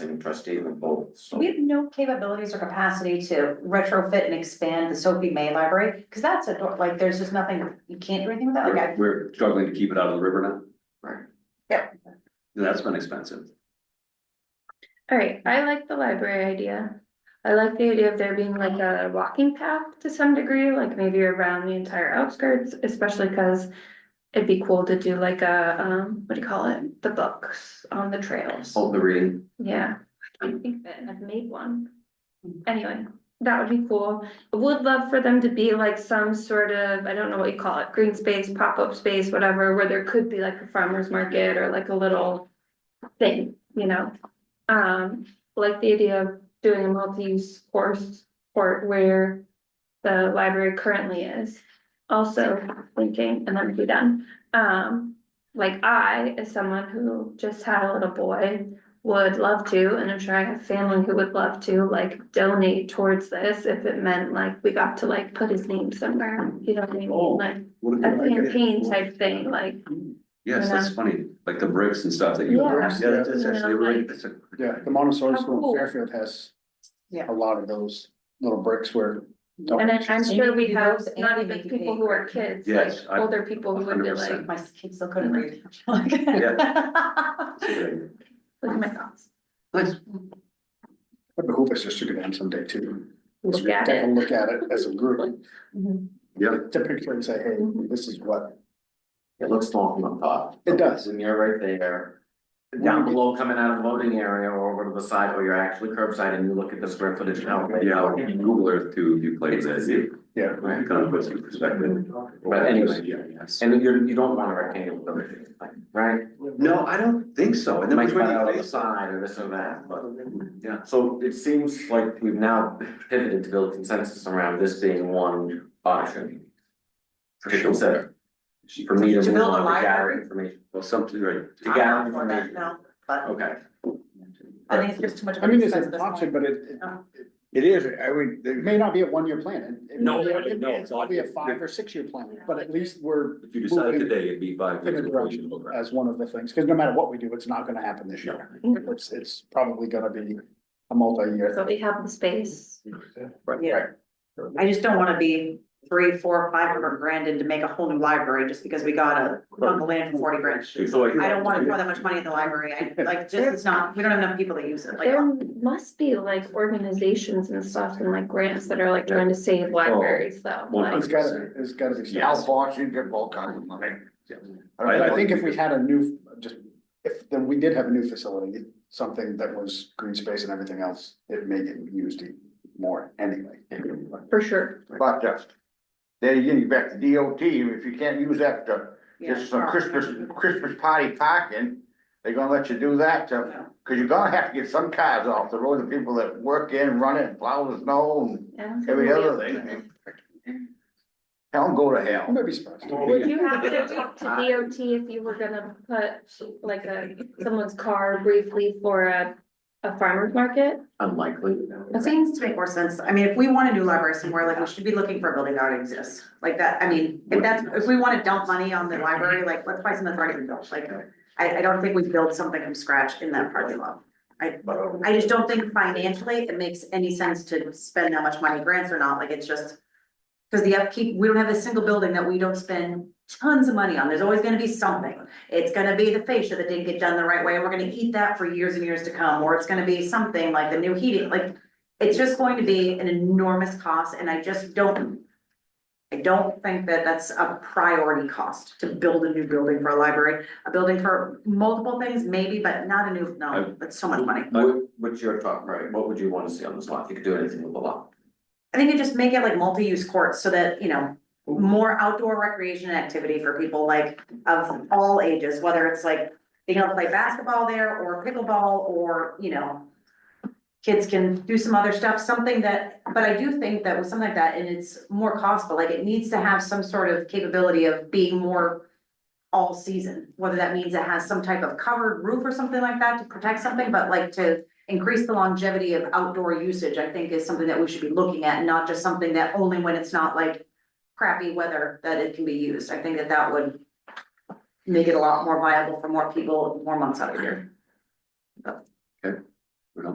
and trustee were both, so. We have no capabilities or capacity to retrofit and expand the Sophie May Library, because that's a door, like, there's just nothing, you can't do anything with that, okay? We're- We're struggling to keep it out of the river now. Right. Yeah. And That's been expensive. Alright, I like the library idea. I like the idea of there being like a walking path to some degree, like maybe around the entire outskirts, especially cuz. It'd be cool to do like a, um, what do you call it? The books on the trails. Hold the reading. Yeah, I can't think of it, and I've made one. Anyway, that would be cool. Would love for them to be like some sort of, I don't know what you call it, green space, pop-up space, whatever, where there could be like a farmer's market or like a little thing, you know? Um, like the idea of doing a multi-use course or where the library currently is. Also thinking, and then be done, um, like I, as someone who just had a little boy would love to, and I'm sure I have family who would love to, like donate towards this if it meant like we got to like put his name somewhere, you know what I mean? Oh, Like What a good idea. campaign type thing, like, Yes, that's funny, like the bricks and stuff that you. Yeah. Yeah, that's that's actually really, that's a. Yeah, the Montessori How school Oh, cool. in Fairfield has Yeah. a lot of those little bricks where. Oh, and then I'm sure we Maybe have those and not maybe even people who are kids, like Yes, I- older people who would be like, 100%. My kids still couldn't read. Yeah. it's a good idea. look at oh my thoughts. Nice. It behooves us just to go down someday too. Look at Take a it. look at it as a group, Yeah. to picture and say, hey, Mm-hmm. this is what, It looks long on top. It does. And you're right there. Down below, coming out of the loading area or over to the side, or you're actually curbside and you look at the square footage now. Yeah, like Google Earth too, you play with that, you yeah. Right. kind of put some perspective. But anyway, Yeah, yes. and you're, you don't want a rectangle building, right? No, I don't think so, and It then my might cut twenty out on the days- side or this or that, but. yeah. So it seems like we've now pivoted to build consensus around this being one option. For To sure. consider. For me to To move build a on to gather library? information, Well, something, right, to gather for that, information, no, but okay. I think it's just too much of I an mean, it's expense at an this option, point. but it, Uh-huh. Oh. it, it is, I mean, it may not be a one-year plan. It- it No, may be a- no, it may it's not. Be a five or six-year plan, but at least we're If you decide Moving. today, it'd be five years Figure it before out. you should look around. as one of the things, because no matter what we do, it's not gonna happen this year. It's, it's probably gonna be a multi-year. Mm-hmm. So we have the space, Yeah, I just don't wanna be three, four, five hundred grand in to make a whole new library just because we got a bundle land for forty grand. So I don't wanna pour that much money in the library, I, like, just, it's not, we don't have enough people that use it, like. there must be like organizations and stuff and like grants that are like trying to save libraries though, Oh. One like. It's gotta, be- it's gotta be. Al Fox, you get all kinds of money. But I think if we had a new, just, if, then we did have a new facility, something that was green space and everything else, it may get used e-, more anyway. For sure, But uh, then again, you back to DOT, if you can't use that to, just some Christmas, Christmas party parking, they're gonna let you do that uh, to, No. cause you're gonna have to get some cars off the road, the people that work in, run it, plow the snow and yeah. every other thing. Tell them go to I hell. might be surprised. Would you have to talk to DOT if you were gonna put like a, someone's car briefly for a, a farmer's market? Unlikely. It seems to make more sense, I mean, if we want a new library somewhere, like, we should be looking for a building that already exists, like that, I mean, if that's, if we wanna dump money on the library, like, let's buy something that's already been built, like. I, I don't think we build something from scratch in that parking lot, I, I just don't think financially it makes any sense to spend that much money, grants or not, like, it's just. Cause the upkeep, we don't have a single building that we don't spend tons of money on, there's always gonna be something. It's gonna be the fascia that didn't get done the right way, and we're gonna eat that for years and years to come, or it's gonna be something like the new heating, like. It's just going to be an enormous cost, and I just don't. I don't think that that's a priority cost to build a new building for a library, a building for multiple things maybe, but not a new, no, that's so much money. What, what's your thought, right, what would you wanna see on this lot, if you could do anything with the lot? I think you just make it like multi-use courts so that, you know, more outdoor recreation and activity for people like of all ages, whether it's like being able to play basketball there or pickleball or, you know, kids can do some other stuff, something that, but I do think that with something like that, and it's more cost, but like it needs to have some sort of capability of being more all season, whether that means it has some type of covered roof or something like that to protect something, but like to increase the longevity of outdoor usage, I think is something that we should be looking at, not just something that only when it's not like crappy weather that it can be used. I think that that would make it a lot more viable for more people, more months out of the year.